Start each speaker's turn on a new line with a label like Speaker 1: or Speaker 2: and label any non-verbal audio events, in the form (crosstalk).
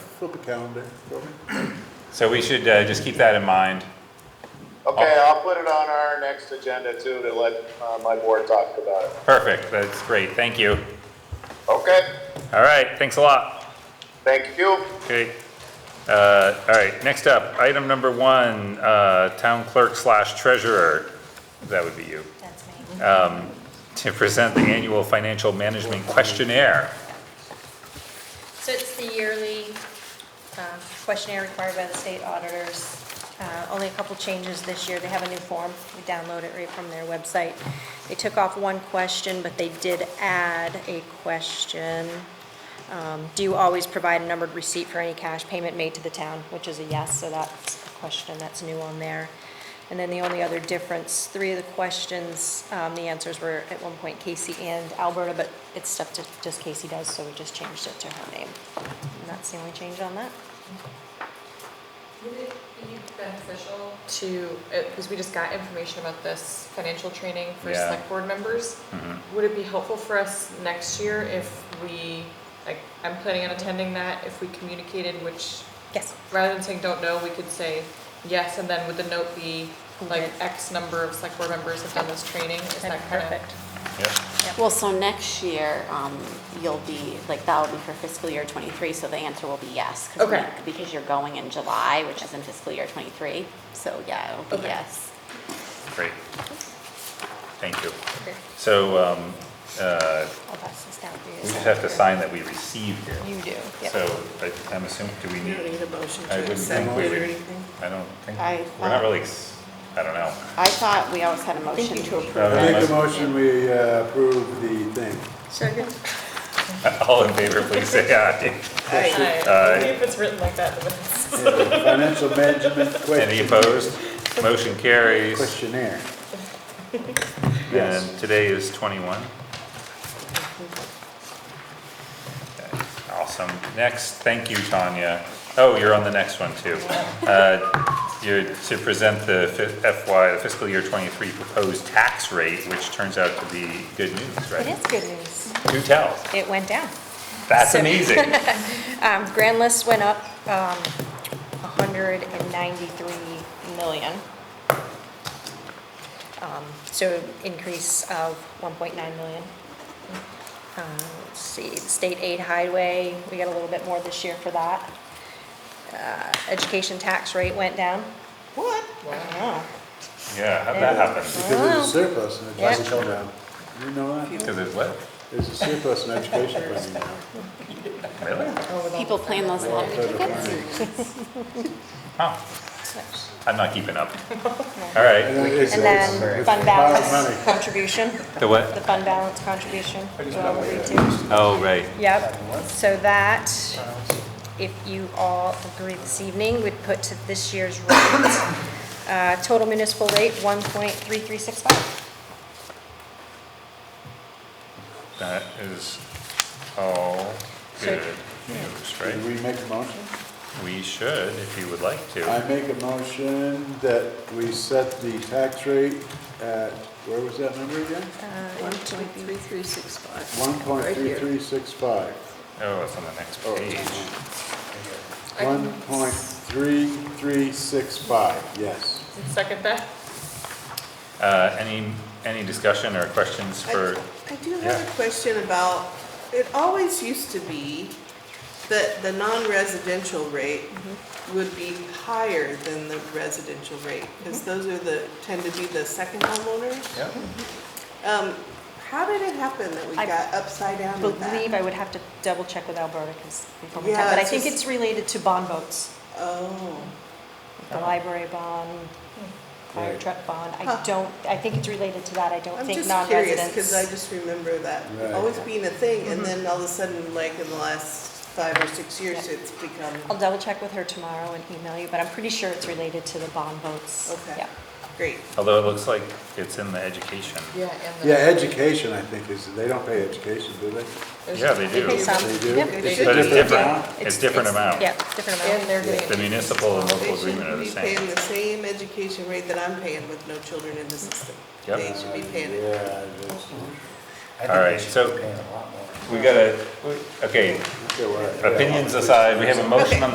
Speaker 1: Flip a calendar for me.
Speaker 2: So we should uh, just keep that in mind.
Speaker 3: Okay, I'll put it on our next agenda too to let uh, my board talk about it.
Speaker 2: Perfect, that's great, thank you.
Speaker 3: Okay,
Speaker 2: All right, thanks a lot.
Speaker 3: thank you.
Speaker 2: Okay. Uh, All right, next up, item number one, uh, town clerk slash treasurer, that would be you,
Speaker 4: That's me.
Speaker 2: to present the annual financial management questionnaire.
Speaker 4: So it's the yearly um, questionnaire required by the state auditors. Uh, Only a couple changes this year. They have a new form. We download it right from their website. They took off one question, but they did add a question. Um, Do you always provide a numbered receipt for any cash payment made to the town? Which is a yes, so that's a question that's new on there. And then the only other difference, three of the questions, um, the answers were at one point Casey and Alberta, but it's stuff that just Casey does, so we just changed it to her name. And that's the only change on that.
Speaker 5: Would it be beneficial to, because we just got information about this financial training for
Speaker 2: Yeah. Mm-hmm.
Speaker 5: select board members? Would it be helpful for us next year if we, like, I'm planning on attending that, if we communicated which,
Speaker 4: Yes.
Speaker 5: rather than saying don't know, we could say yes, and then would the note be like
Speaker 4: did.
Speaker 5: X number of select board members have done this training? Is
Speaker 4: That'd
Speaker 5: that
Speaker 4: be
Speaker 5: kind of?
Speaker 4: perfect.
Speaker 2: Yep.
Speaker 6: Well, so next year, um, you'll be, like, that'll be for fiscal year twenty-three, so the answer will be yes. 'cause we-
Speaker 5: Okay.
Speaker 6: Because you're going in July, which is in fiscal year twenty-three, so yeah, it'll be
Speaker 5: Okay.
Speaker 6: yes.
Speaker 2: Great. Thank you.
Speaker 4: Okay.
Speaker 2: So um, uh,
Speaker 4: I'll pass this down for you.
Speaker 2: we just have to sign that we received it.
Speaker 4: You do. Yep.
Speaker 2: So I- I'm assuming, do we
Speaker 7: You don't
Speaker 2: need,
Speaker 7: need a motion
Speaker 2: I
Speaker 7: to
Speaker 2: wouldn't
Speaker 7: accept
Speaker 2: think we
Speaker 7: it
Speaker 2: would-
Speaker 7: or anything?
Speaker 2: I don't think,
Speaker 6: I
Speaker 2: we're not
Speaker 6: thought-
Speaker 2: really, ex- I don't know.
Speaker 6: I thought we always had a motion to approve.
Speaker 2: Uh,
Speaker 1: I make a
Speaker 2: unless-
Speaker 1: motion, we uh, approve the thing.
Speaker 4: Second.
Speaker 2: (laughs) All in favor, please say aye.
Speaker 5: Aye. Maybe if it's written like that, then it's-
Speaker 1: Yeah, Financial management question-
Speaker 2: Any opposed? Motion carries.
Speaker 1: questionnaire. Yes.
Speaker 2: And today is 21. Okay, Awesome. Next, thank you, Tanya. Oh, you're on the next one, too. Uh, You're to present the fi- FY, the fiscal year 23 proposed tax rate, which turns out to be good news,
Speaker 4: It
Speaker 2: right?
Speaker 4: is good news.
Speaker 2: Do tell.
Speaker 4: It went down.
Speaker 2: That's
Speaker 4: So- (laughs)
Speaker 2: amazing.
Speaker 4: Um, Grand list went up, um, hundred and ninety-three million. Um, so increase of one point nine million. Uh, let's see, the state aid highway, we got a little bit more this year for that. Uh, education tax rate went down. Oh, What? I don't know.
Speaker 2: Yeah, how'd that happen?
Speaker 1: Because there's a surplus in education now. You know that?
Speaker 2: Because it's what?
Speaker 1: There's a surplus in education funding now.
Speaker 2: Really?
Speaker 6: People plan those lottery
Speaker 1: Federal
Speaker 6: tickets.
Speaker 1: funding.
Speaker 2: Oh, I'm not keeping up. All right.
Speaker 1: And it's-
Speaker 4: And
Speaker 1: it's-
Speaker 4: then
Speaker 1: it's
Speaker 4: fund
Speaker 1: pile of
Speaker 4: balance
Speaker 1: money.
Speaker 4: contribution,
Speaker 2: The what?
Speaker 4: the fund balance contribution. we'll agree to.
Speaker 2: Oh, right.
Speaker 4: Yep, so that, if you all agree this evening, would put to this year's rate, uh, total municipal rate, 1.3365.
Speaker 2: That is all
Speaker 4: So-
Speaker 2: good news,
Speaker 1: Did
Speaker 2: right?
Speaker 1: we make a motion?
Speaker 2: We should, if you would like
Speaker 1: I
Speaker 2: to.
Speaker 1: make a motion that we set the tax rate at, where was that number again?
Speaker 7: One Uh, point three three six five.
Speaker 1: One point three three six five.
Speaker 2: Oh, it's on the next page.
Speaker 1: One point three three six five, yes.
Speaker 5: Second that?
Speaker 2: Uh, any, any discussion or questions for,
Speaker 7: I do have
Speaker 2: Yeah.
Speaker 7: a question about, it always used to be that the non-residential rate
Speaker 4: Mm-hmm.
Speaker 7: would be higher than the residential rate,
Speaker 4: Mm-hmm.
Speaker 7: because those are the, tend to be the second homeowners.
Speaker 2: Yeah.
Speaker 7: Um, how did it happen that we
Speaker 4: Mm-hmm. I
Speaker 7: got upside down with that?
Speaker 4: Believe I would have to double check with Alberta, because we probably
Speaker 7: Yeah,
Speaker 4: have, but I
Speaker 7: it's
Speaker 4: think
Speaker 7: just-
Speaker 4: it's related to bond votes,
Speaker 7: Oh,
Speaker 4: the
Speaker 2: Uh-huh.
Speaker 4: library bond, fire
Speaker 2: Hmm.
Speaker 1: Right.
Speaker 4: truck bond. I
Speaker 7: Huh.
Speaker 4: don't, I think it's related to that, I don't
Speaker 7: I'm
Speaker 4: think
Speaker 7: just curious,
Speaker 4: non-residents. Mm-hmm.
Speaker 7: because I just remember that
Speaker 1: Right.
Speaker 7: always being a thing, and then all of a sudden, like in the last five or six years,
Speaker 4: Yeah.
Speaker 7: it's become,
Speaker 4: I'll double check with her tomorrow and email you, but I'm pretty sure it's related to the bond votes.
Speaker 7: okay,
Speaker 4: Yeah.
Speaker 7: great.
Speaker 2: although it looks like it's in the education.
Speaker 5: Yeah, and
Speaker 1: Yeah, education, I think, is, they don't pay education, do they?
Speaker 2: Yeah, they
Speaker 4: They pay
Speaker 2: do.
Speaker 4: some.
Speaker 1: They do?
Speaker 4: Yep.
Speaker 7: They
Speaker 2: But it's
Speaker 7: do.
Speaker 2: different. It's different
Speaker 4: it's-
Speaker 2: amount.
Speaker 4: Yeah, different amount.
Speaker 5: And they're
Speaker 2: The
Speaker 5: getting,
Speaker 2: municipal and
Speaker 7: They
Speaker 2: local
Speaker 7: should
Speaker 2: agreement are the
Speaker 7: be paying
Speaker 2: same.
Speaker 7: the same education rate that I'm paying with no children in the system.
Speaker 2: Yep.
Speaker 7: They should be paying it.
Speaker 1: Yeah, that's,
Speaker 8: I
Speaker 2: All
Speaker 8: think
Speaker 2: right,
Speaker 8: they should
Speaker 2: so-
Speaker 8: be paying a lot more.
Speaker 2: We gotta,
Speaker 1: okay,
Speaker 2: okay,
Speaker 1: well, yeah.
Speaker 2: opinions aside, we have a motion on the